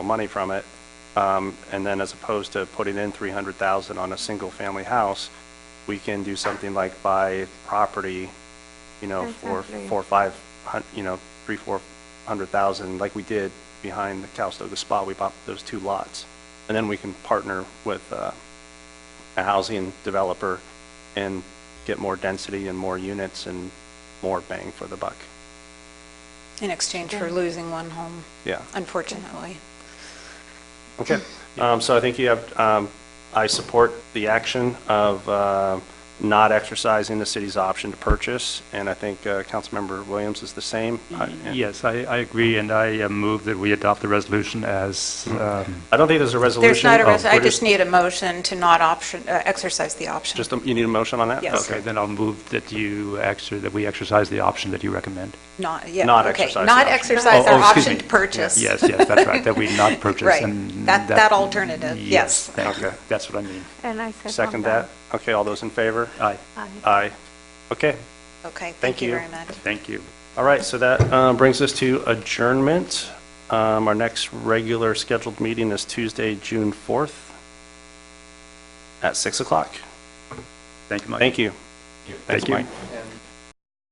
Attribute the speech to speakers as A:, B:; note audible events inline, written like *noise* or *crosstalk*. A: money from it, um, and then as opposed to putting in 300,000 on a single-family house, we can do something like buy property, you know, for,
B: Exactly.
A: for five hun, you know, three, four hundred thousand, like we did behind the Calistoga Spa, we bought those two lots. And then we can partner with, uh, a housing developer and get more density and more units and more bang for the buck.
C: in exchange for losing one home,
A: Yeah.
C: unfortunately.
A: Okay. Um, so I think you have, um, I support the action of, uh, not exercising the city's option to purchase, and I think, uh, Councilmember Williams is the same. I- and-
D: Yes, I, I agree, and I uh, move that we adopt the resolution as, um,
A: I don't think there's a resolution.
C: There's not a,
A: Oh,
C: res- I
A: we're
C: just need a motion to not option, uh, exercise the option.
A: Just, a- you need a motion on that?
C: Yes.
A: Okay.
D: okay, then I'll move that you, exer- that we exercise the option that you recommend.
C: Not, yeah,
A: Not
C: okay.
A: exercise the
C: Not
A: option.
C: exercise
D: Oh,
C: our
D: oh, excuse
C: option
D: me.
C: to purchase.
D: Yes, yes, that's right, that
C: *laughs*
D: we not purchase
C: Right,
D: and.
C: that- that alternative, yes.
D: Thank you,
A: Okay.
D: that's what I mean.
B: And I second
A: Second that? Okay, all those in favor?
D: Aye,
B: Aye.
A: Aye. Okay,
C: Okay,
A: Thank
C: thank you
A: you.
C: very much.
D: thank you.
A: all right, so that uh, brings us to adjournment. Um, Our next regular scheduled meeting is Tuesday, June 4th at 6 o'clock.
D: Thank you, Mike.
A: Thank you. Thanks,
D: you.
A: Mike.
E: And